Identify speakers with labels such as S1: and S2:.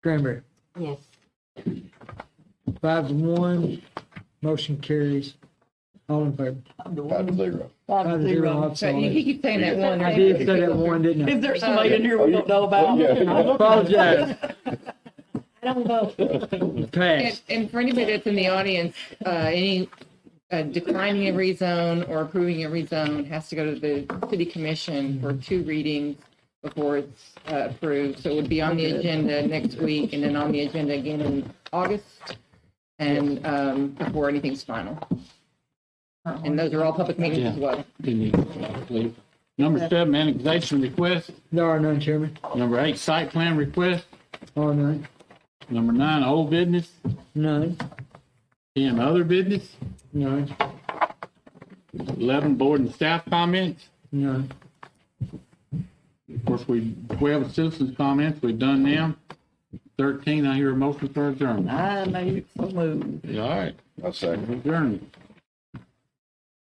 S1: Cranberry,
S2: Yes.
S1: five to one, motion carries. All in favor?
S3: Five to zero.
S1: Five to zero, I'm sorry.
S4: He keeps saying that one.
S1: I did say that one, didn't I?
S4: Is there somebody in here we don't know about?
S3: Oh, Yeah.
S1: Apologize,
S2: I don't vote.
S1: passed.
S4: And, and for anybody that's in the audience, uh, any, uh, declining a rezone or approving a rezone has to go to the city commission for two readings before it's uh, approved. So it would be on the agenda next week and then on the agenda again in August and, um, before anything's final. And those are all public meetings as well.
S5: Number seven, annexation request.
S1: There are none, Chairman.
S5: Number eight, site plan request.
S1: All none,
S5: Number nine, old business.
S1: none,
S5: Ten, other business.
S1: none,
S5: Eleven, board and staff comments.
S1: none.
S5: Of course, we, twelve, citizens comments. We've done them. Thirteen, I hear a motion for adjournment.
S4: I made so moved.
S5: All right,
S3: I'll second.
S5: adjournment.